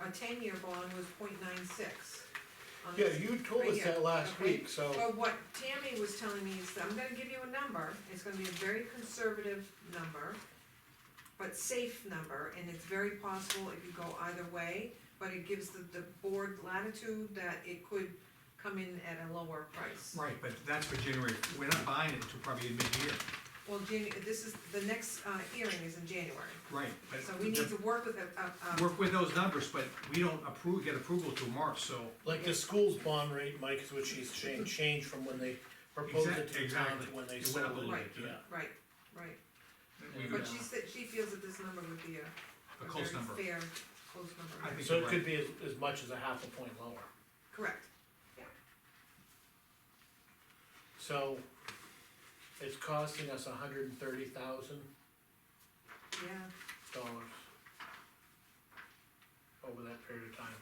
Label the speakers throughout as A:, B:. A: our ten-year bond was 0.96. on
B: Yeah,
A: this-
B: you told
A: right
B: us
A: here,
B: that last
A: okay?
B: week, so,
A: But what Tammy was telling me is, that I'm gonna give you a number, it's gonna be a very conservative number, but safe number, and it's very possible it could go either way, but it gives the, the board latitude that it could come in at a lower price.
C: Right, but that's for January, we're not buying it until probably mid-year,
A: Well, Jan, this is, the next, uh, hearing is in January,
C: right, but.
A: so we need to um, work with a, a, a,
C: Work with those numbers, but we don't approve, get approval till March, so.
B: like the school's bond rate, Mike, is what she's saying, changed from when they proposed it to the town
C: Exactly.
B: to when they
C: It went up a
B: sold
C: little
B: it,
C: bit,
B: yeah.
C: yeah.
A: right, right.
C: We
B: Yeah.
C: would,
A: But she said, she feels that this number would be a,
C: a
A: a very
C: close number,
A: fair, close number.
C: I think
B: So
C: you're
B: it
C: right.
B: could be as, as much as a half a point lower,
A: Correct,
B: so it's costing us hundred and thirty thousand
A: yeah.
B: dollars over that period of time.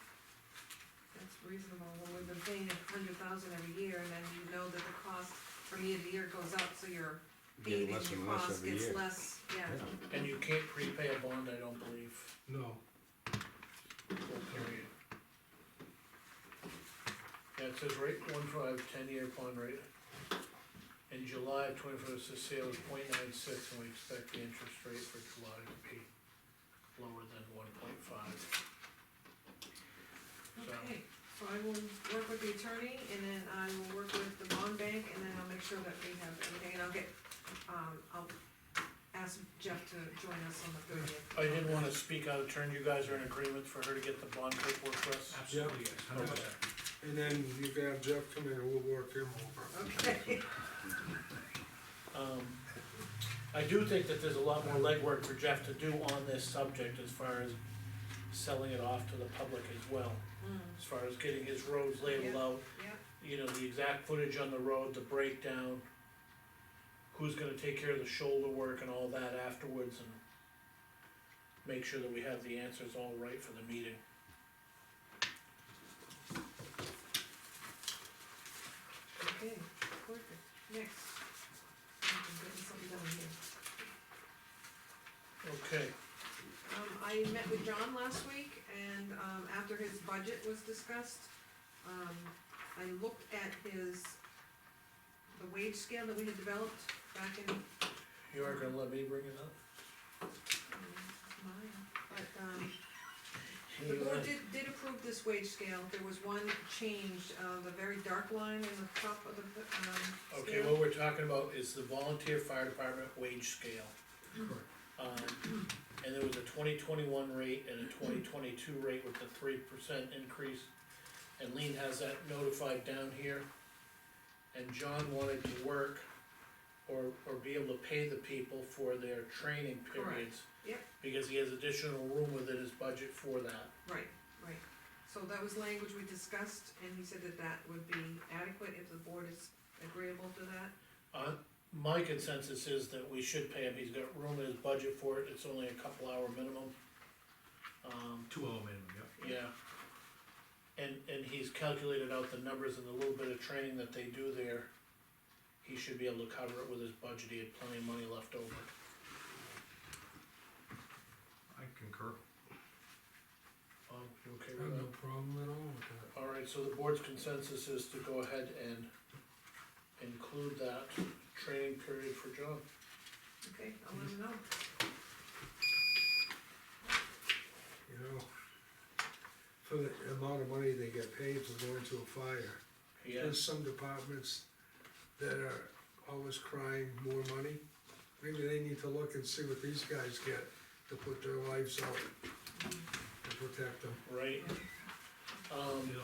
A: That's reasonable, when we've been paying a hundred thousand every year, and then you know that the cost from year to year goes up, so your
D: Getting
A: payment,
D: less
A: your
D: and less
A: cost
D: every
A: gets
D: year.
A: less, yeah.
D: Yeah.
B: And you can't prepay a bond, I don't believe,
E: No,
B: full period. Yeah, it says rate one five, ten year bond rate. In July of twenty-four, it says sale is point nine six, and we expect the interest rate for July to be lower than one point five. So,
A: Okay, so I will work with the attorney, and then I will work with the bond bank, and then I'll make sure that we have everything, and I'll get, um, I'll ask Jeff to join us on the thirtieth.
B: I did wanna speak out of turn, you guys are in agreement for her to get the bond paperwork for us?
C: Absolutely, yes, hundred percent.
E: and then you can have Jeff come in and we'll work him over.
A: Okay,
B: Um, I do think that there's a lot more legwork for Jeff to do on this subject as far as selling it off to the public as well.
A: Mm,
B: As far as getting his roads labeled out,
A: yeah,
B: you know, the exact footage on the road, the breakdown. Who's gonna take care of the shoulder work and all that afterwards and make sure that we have the answers all right for the meeting.
A: okay, perfect, next. I'm getting something done here.
B: Okay,
A: Um, I met with John last week and, um, after his budget was discussed, um, I looked at his, the wage scale that we had developed back in,
B: you aren't gonna let me bring it up?
A: um, Maya, but, um, the board did, did approve this wage scale. There was one change, uh, the very dark line in the top of the, um,
B: Okay,
A: scale.
B: what we're talking about is the volunteer fire department wage scale.
C: Correct.
B: Um, and there was a twenty twenty-one rate and a twenty twenty-two rate with a three percent increase. And Lean has that notified down here. And John wanted to work or, or be able to pay the people for their training
A: Correct.
B: periods.
A: Yep.
B: Because he has additional room within his budget for that.
A: Right, right. So that was language we discussed and he said that that would be adequate if the board is agreeable to that.
B: Uh, my consensus is that we should pay him, he's got room in his budget for it, it's only a couple hour minimum. Um,
C: Two oh minimum, yep.
B: Yeah. And, and he's calculated out the numbers and the little bit of training that they do there. He should be able to cover it with his budget, he had plenty of money left over.
C: I concur.
B: Um, you okay
E: I have
B: with
E: no
B: that?
E: problem at all with that.
B: Alright, so the board's consensus is to go ahead and include that training period for John.
A: Okay, I'll let him know.
E: you know, for the amount of money they get paid for going to a fire.
B: Yeah,
E: There's some departments that are always crying more money. Maybe they need to look and see what these guys get to put their lives out to protect them.
B: right? Um,
C: Yeah.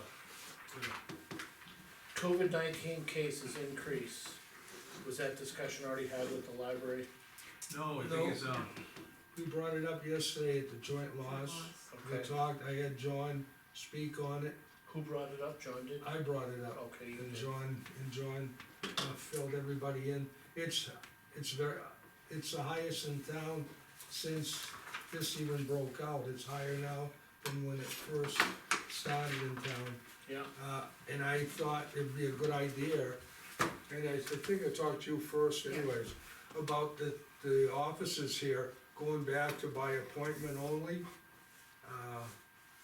B: COVID nineteen cases increase, was that discussion already had with the library?
C: No, I
E: No.
C: think it's, um,
E: We brought it up yesterday at the joint laws. We
B: Okay,
E: talked, I had John speak on it.
B: who brought it up, John did?
E: I brought it up.
B: Okay, you
E: Uh, And
B: did.
E: John, and John uh, filled everybody in. It's, it's very, it's the highest in town since this even broke out. It's higher now than when it first started in town.
B: yeah,
E: Uh, and I thought it'd be a good idea, and I think I talked to you first anyways, about the, the offices here going back to by appointment only. Uh,